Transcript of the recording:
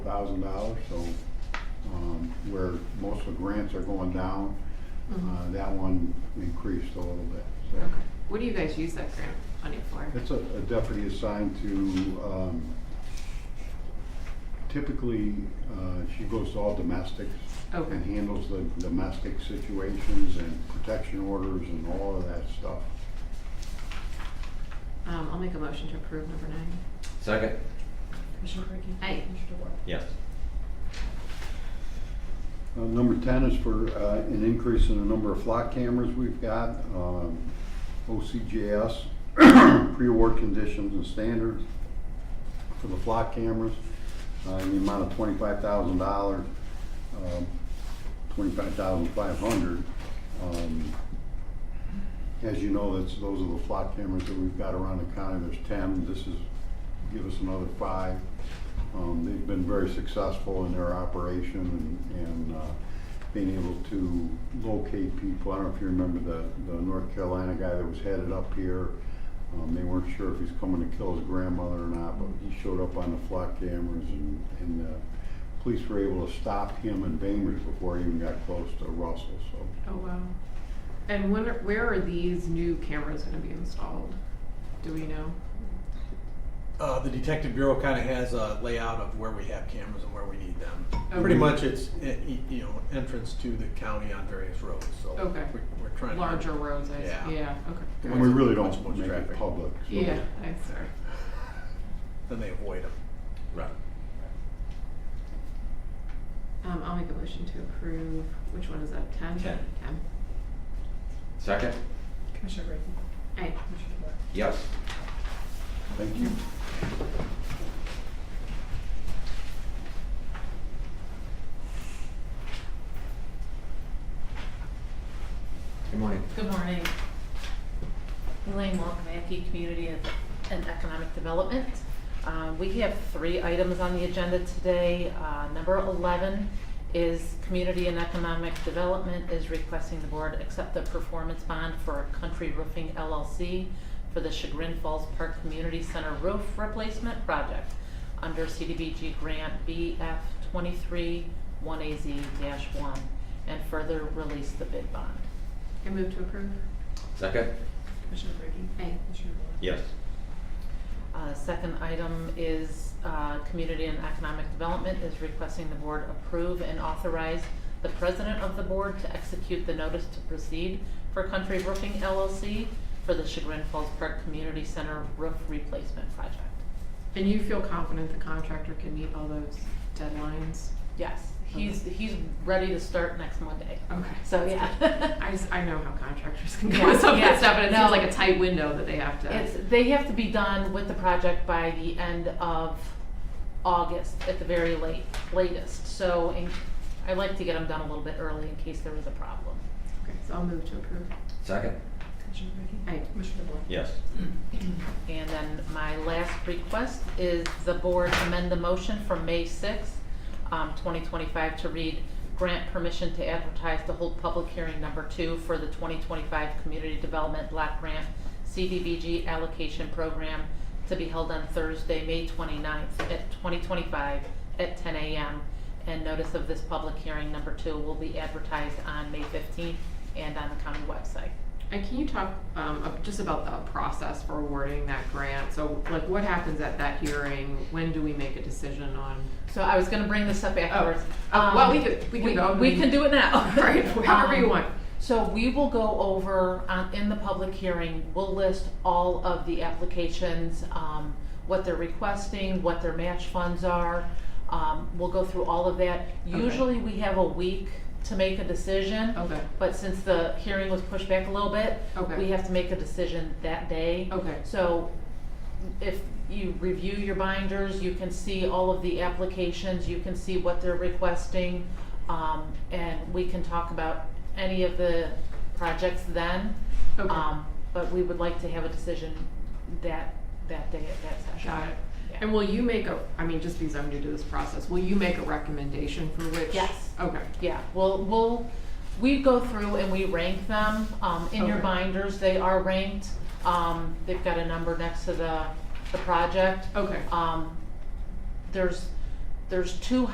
thousand dollars, so, um, where most of the grants are going down, uh, that one increased a little bit, so. Mm-hmm. Okay. What do you guys use that grant money for? It's a a deputy assigned to, um, typically, uh, she goes to all domestics Okay. and handles the domestic situations and protection orders and all of that stuff. Um, I'll make a motion to approve number nine. Second? Commissioner Brinkley? Aye. Commissioner DeWort? Yes. Uh, Number 10 is for uh, an increase in the number of flock cameras we've got. um, OCGS, pre-award conditions and standards for the flock cameras, uh, in the amount of $25,000, um, $25,500. Um, As you know, that's, those are the flock cameras that we've got around the county. There's 10. This is, give us another five. Um, They've been very successful in their operation and, and uh, being able to locate people. I don't know if you remember the, the North Carolina guy that was headed up here. Um, They weren't sure if he's coming to kill his grandmother or not, but he showed up on the flock cameras and, and the police were able to stop him in Bainbridge before he even got close to Russell, so. Oh, wow. And when, are- where are these new cameras gonna be installed? Do we know? Uh, the detective bureau kind of has a layout of where we have cameras and where we need them. Okay. Pretty much, it's eh, y- you know entrance to the county on various roads. So Okay. we're, we're trying Larger To, roads, I, Yeah. see. yeah, okay. And we really Much more don't make it traffic. public. so- Yeah, I, sorry. then they avoid them. Right. Um, I'll make a motion to approve, which one is that, ten? Ten. Ten. Second? Commissioner Brinkley? Aye. Commissioner DeWort? Yes. Thank you. Good morning. Good morning. Elaine Walkmacki, Community and- and Economic Development. Uh, We have three items on the agenda today. Uh, Number 11 is Community and Economic Development is requesting the board accept the performance bond for Country Roofing LLC for the Chagrin Falls Park Community Center roof replacement project under CDBG Grant BF 23-1AZ-1 and further release the bid bond. I move to approve. Second? Commissioner Brinkley? Aye. Commissioner DeWort? Yes. Uh, Second item is uh, Community and Economic Development is requesting the board approve and authorize the president of the board to execute the notice to proceed for Country Roofing LLC for the Chagrin Falls Park Community Center roof replacement project. And you feel confident the contractor can meet all those deadlines? Yes, he's, he's ready to start next Monday. Okay. So, yeah. I, s- I know how contractors can go Yeah, with some of yeah, that stuff, and it seems no. like a tight window that they have to. It's, they have to be done with the project by the end of August at the very late, latest. So in- I like to get them done a little bit early in case there was a problem. Okay, so I'll move to approve. Second? Commissioner Brinkley? Aye. Commissioner DeWort? Yes. And then my last request is the board amend the motion from May sixth, um, twenty twenty-five to read grant permission to advertise to hold public hearing number two for the twenty twenty-five Community Development Block Grant CDBG Allocation Program to be held on Thursday, May 29th at twenty twenty-five at ten AM. And notice of this public hearing number two will be advertised on May fifteenth and on the county website. And can you talk um, ab- just about the process for awarding that grant? So, like, what happens at that hearing? When do we make a decision on? So I was gonna bring this up afterwards. Oh, Um, well, we could- we can go. We can do it now. Right, however you Um, want. So we will go over, um, in the public hearing, we'll list all of the applications, um, what they're requesting, what their match funds are. Um, we'll go through all of that. Okay. Usually we have a week to make a decision, Okay. but since the hearing was pushed back a little bit, Okay. we have to make a decision that day. Okay. So if you review your binders, you can see all of the applications, you can see what they're requesting. Um, and we can talk about any of the projects then. Okay. Um, but we would like to have a decision that, that day at that session. Got it. Yeah. And will you make a? I mean, just because I'm new to this process, will you make a recommendation for which? Yes. Okay. Yeah, we'll, we'll, we go through and we rank them, um, in your Okay. binders, they are ranked. Um, they've got a number next to the, the project. Okay. Um, there's There's two